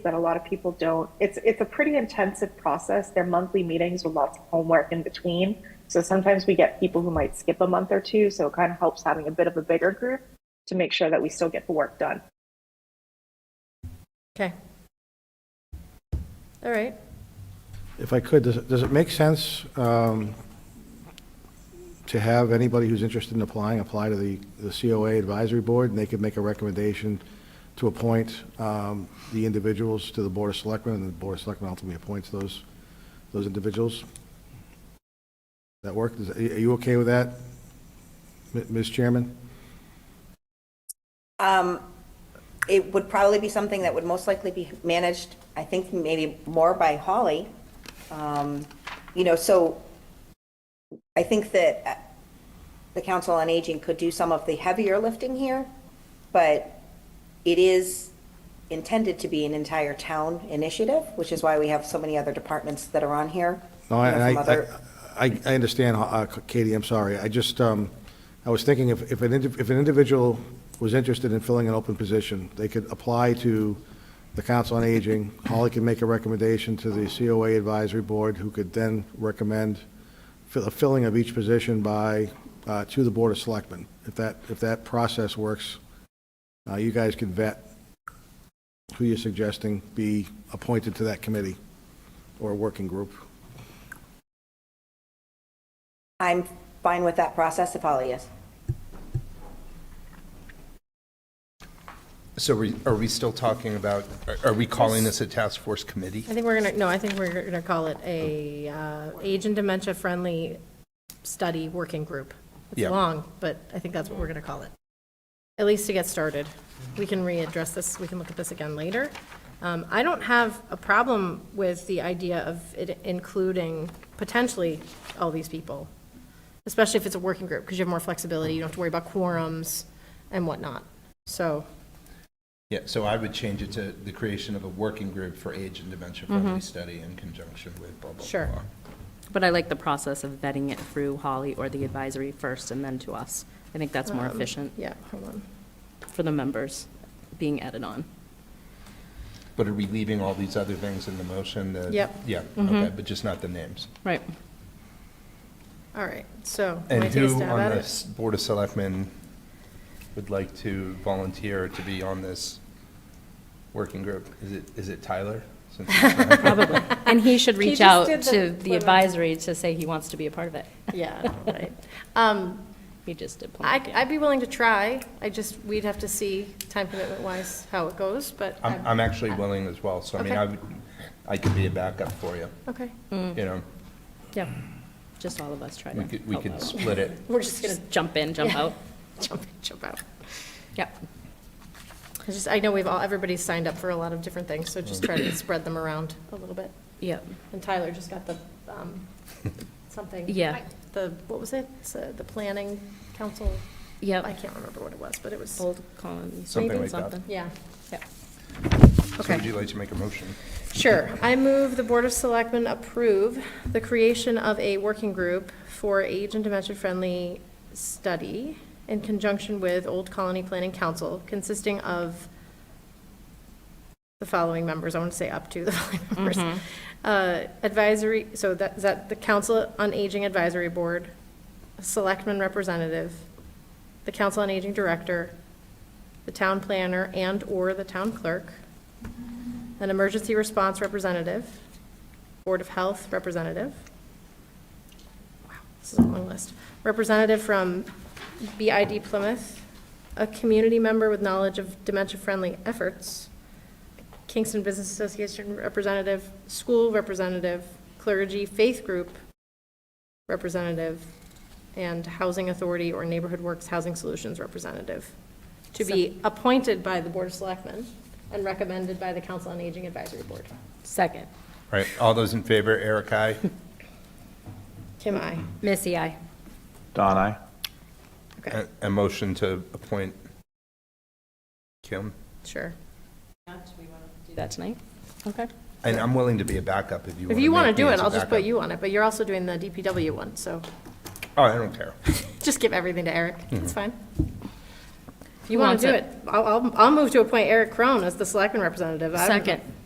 that a lot of people don't. It's it's a pretty intensive process. They're monthly meetings with lots of homework in between. So sometimes we get people who might skip a month or two. So it kind of helps having a bit of a bigger group to make sure that we still get the work done. Okay. All right. If I could, does, does it make sense um, to have anybody who's interested in applying, apply to the, the COA Advisory Board, and they could make a recommendation to appoint um, the individuals to the Board of Selectmen, and the Board of Selectmen ultimately appoints those, those individuals? That work? Is- Are you okay with that, M- Ms. Chairman? Um, It would probably be something that would most likely be managed, I think, maybe more by Holly. Um, You know, so I think that uh, the Council on Aging could do some of the heavier lifting here, but it is intended to be an entire town initiative, which is why we have so many other departments that are on here. No, you I, know, I, from other- I, I- I understand, uh, Katie, I'm sorry. I just, um, I was thinking if, if an, indi- if an individual was interested in filling an open position, they could apply to the Council on Aging. Holly can make a recommendation to the COA Advisory Board, who could then recommend fill- a filling of each position by, uh, to the Board of Selectmen. If that, if that process works, uh, you guys can vet who you're suggesting be appointed to that committee or working group. I'm fine with that process if Holly is. So we- are we still talking about, are- are we calling this a task force committee? I think we're gonna, no, I think we're gonna call it a uh, age and dementia-friendly study working group. It's Yeah. long, but I think that's what we're gonna call it. At least to get started. We can readdress this, we can look at this again later. Um, I don't have a problem with the idea of it including potentially all these people, especially if it's a working group, because you have more flexibility, you don't have to worry about quorums and whatnot. So, Yeah, so I would change it to the creation of a working group for age and dementia-friendly study in conjunction with blah, blah, Mm-hmm. Sure. blah. But I like the process of vetting it through Holly or the advisory first and then to us. I think that's more efficient Um, yeah, hold on. for the members being added on. But are we leaving all these other things in the motion? the- Yep. Mm-hmm. Yeah, okay, but just not the names. Right. All right, so. And wanna take a who stab on at it? the Board of Selectmen would like to volunteer to be on this working group? Is it, is it Tyler? Since he's not- Probably. And he should He reach just out did the to the women's- advisory to say he wants to be a part of it. Yeah, right. Um, He just did. plan. I, I'd be willing to try. I just, we'd have to see time commitment wise how it goes, but. I'm, I'm actually willing as well, so I mean, Okay. I would, I could be a backup for you, Okay. you know? Yeah. Just all of us try to We could, we help could out. split it. We're just going to jump in, jump out. Jump, in, jump out. Yep. I just, I know we've all, everybody's signed up for a lot of different things, so just try Mm-hmm. to spread them around a little bit. Yep. And Tyler just got the, um, something. Yeah. I- The, what was it? It's, uh, The planning council? Yep. I can't remember what it was, but it was, Bold column. Something maybe like that. something. yeah. Yep. So Okay. would you like to make a motion? Sure. I move the Board of Selectmen approve the creation of a working group for age and dementia-friendly study in conjunction with Old Colony Planning Council, consisting of the following members, I want to say up to the following members. Uh, Advisory, so that, is that the Council on Aging Advisory Board, a Selectman Representative, the Council on Aging Director, the Town Planner and/or the Town Clerk, an emergency response representative, Board of Health representative. Wow, This is a long list. Representative from BID Plymouth, a community member with knowledge of dementia-friendly efforts, Kingston Business Association representative, school representative, clergy, faith group representative, and Housing Authority or Neighborhood Works Housing Solutions representative to be appointed by the Board of Selectmen and recommended by the Council on Aging Advisory Board. Second. All right, all those in favor, Eric, aye. Kim, I. Missy, I. Don, I. Okay, A- A motion to appoint Kim. sure. Do that tonight. Okay. And I'm willing to be a backup if you want to. If you want to do it, I'll just put you on it, but you're also doing the DPW one, so Oh, I don't care. just give everything to Eric. It's fine. If you Who want wants to do it? it, I'll, I'll, I'll move to appoint Eric Crone as the Selectman representative. I don't- Second.